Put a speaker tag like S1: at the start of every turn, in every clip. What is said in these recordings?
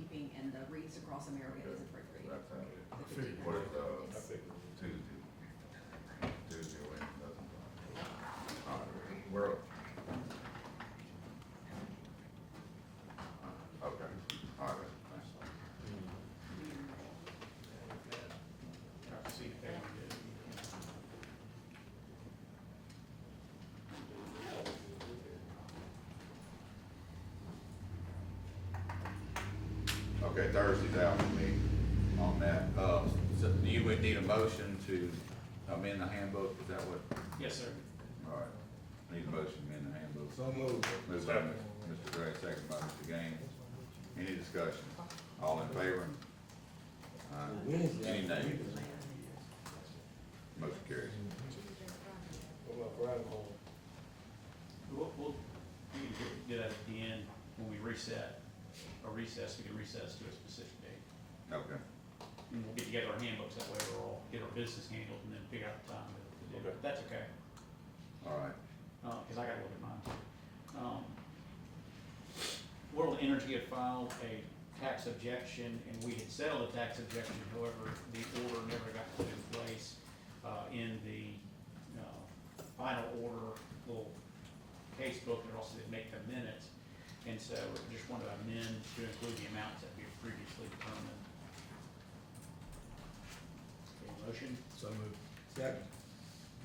S1: uh, reads across America is appropriate.
S2: That's how it
S1: The
S2: is.
S1: 50.
S2: What is, uh,
S1: Yes.
S2: Tuesday? Tuesday, or Wednesday, doesn't matter. All right, We're up. Okay, all right, thanks. Okay, Thursday's out for me on that. Uh, so you would need a motion to amend the handbook, is that what?
S3: Yes, sir.
S2: All right, need a motion to amend the handbook.
S4: So moved.
S2: Moved by Mr. Gray, second by Mr. Gaines. Any discussion? All in favor? Aye. Any nays? Motion carries.
S4: What about Friday morning?
S3: We'll, we'll, we can get at the end, when we reset, or recess, we can recess to a specific date.
S2: Okay,
S3: And we'll get together our handbooks, that way we're all, get our business handled, and then figure out the time to do it. That's okay,
S2: all right.
S3: Uh 'cause cause I gotta look at mine too. Um, World Energy had filed a tax objection, and we had settled a tax objection, however, the order never got put in place, uh, in the, uh, final order, little case book, and also didn't make the minutes. And so we just wanted to amend to include the amounts that we had previously determined. Okay, motion,
S4: So moved. Second.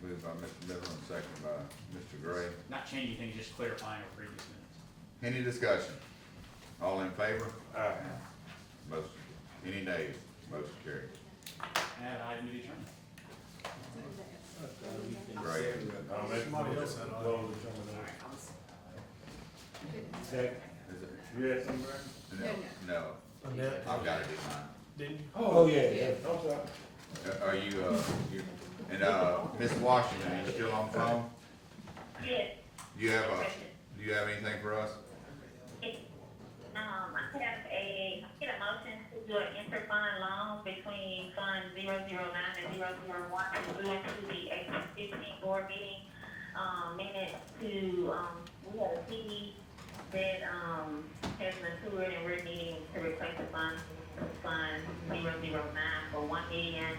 S2: Moved by Mr. Miller and second by Mr. Gray.
S3: not changing things, just clarifying our previous minutes.
S2: Any discussion? All in favor?
S4: Aye.
S2: Motion, any nays? Motion carries.
S3: Add item to the agenda.
S2: Great.
S5: I'll make a motion, close the
S1: All right,
S5: terminal.
S1: I was-
S5: Second.
S2: Is it-
S5: You had something, Brad?
S2: No, no,
S5: Annette?
S2: I've got to do mine.
S5: Didn't you?
S4: Oh, yeah, yeah.
S5: I'm sorry.
S2: Uh, Are you, uh, you, and, uh, Ms. Washington, you still on the phone?
S6: Yes,
S2: Do you have a, do you have anything for us?
S6: um, I have a, I get a motion to do an interfund loan between Fund zero zero nine and zero zero one to go to the April fifteen board meeting, um, minutes to, um, we had a CD that, um, has matured and we're needing to replace the fund, Fund zero zero nine for one million,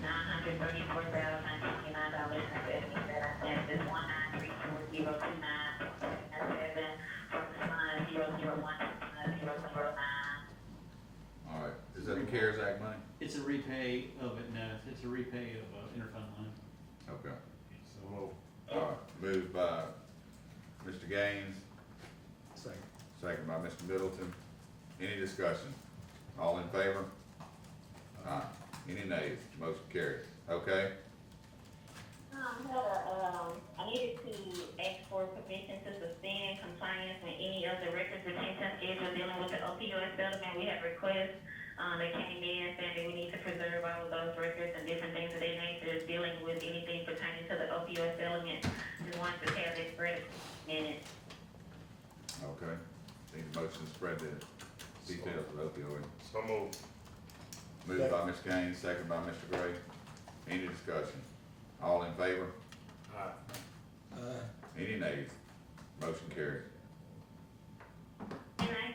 S6: nine hundred thirty-four thousand, twenty-nine dollars and seventy-seven cents. It's one nine three four zero two nine, seven, from fund zero zero one to fund zero zero nine.
S2: All right, is that the CARES Act money?
S3: It's a repay of it, no, it's a repay of uh, interfund loan.
S2: Okay,
S5: So moved.
S2: all right, moved by Mr. Gaines,
S4: Second.
S2: second by Mr. Middleton. Any discussion? All in favor? Aye. Any nays? Motion carries. Okay,
S6: Um, no, um, I needed to ask for permission to suspend compliance with any of the records retention schedule dealing with the opioid settlement. We have requests, um, that came in saying that we need to preserve all of those records and different things of that nature dealing with anything pertaining to the opioid settlement. Just wanted to have that spread minutes.
S2: okay. Need a motion to spread the details of opioid.
S5: So moved.
S2: Moved by Ms. Gaines, second by Mr. Gray. Any discussion? All in favor?
S5: Aye.
S4: Aye.
S2: Any nays? Motion carries.
S6: And I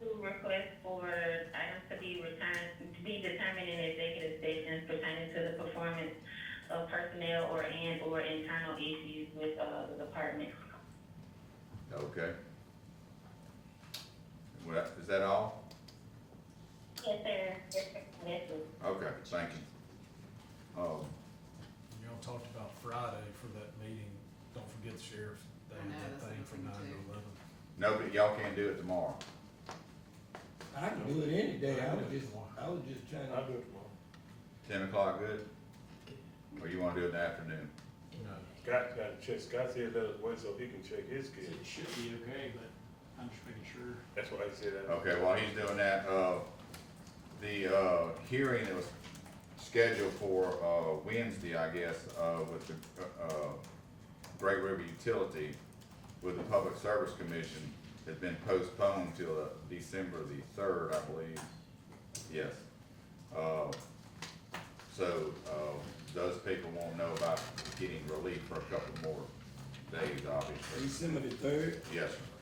S6: do request for items to be returned, to be determined in executive sessions pertaining to the performance of personnel or and or internal issues with, uh, the department.
S2: Okay. Well, that- Is that all?
S6: Yes, sir. Yes, sir. Yes, sir.
S2: Okay, thank you. Um,
S7: Y'all talked about Friday for that meeting, don't forget the sheriff, they
S1: I know,
S7: had
S1: that's
S7: that thing
S1: another
S7: from
S1: thing,
S7: nine to
S1: too.
S7: eleven.
S2: nobody, y'all can't do it tomorrow.
S4: I can do it any day, I was just,
S7: Tomorrow.
S4: I was just trying
S5: I'll
S4: to,
S5: do it tomorrow.
S2: Ten o'clock good? Or you wanna do it in the afternoon?
S7: No,
S5: Scott got to check, Scott said let us wait so he can check his
S3: It
S5: kid.
S3: should be okay, but I'm just making sure.
S5: That's why I said that.
S2: Okay, while he's doing that, uh, the, uh, hearing that was scheduled for, uh, Wednesday, I guess, uh, with the, uh, Great River Utility with the Public Service Commission has been postponed till uh, December the third, I believe. Yes. Uh, so, uh, those people won't know about getting relief for a couple more days, obviously.
S4: December the third,
S2: Yes, sir.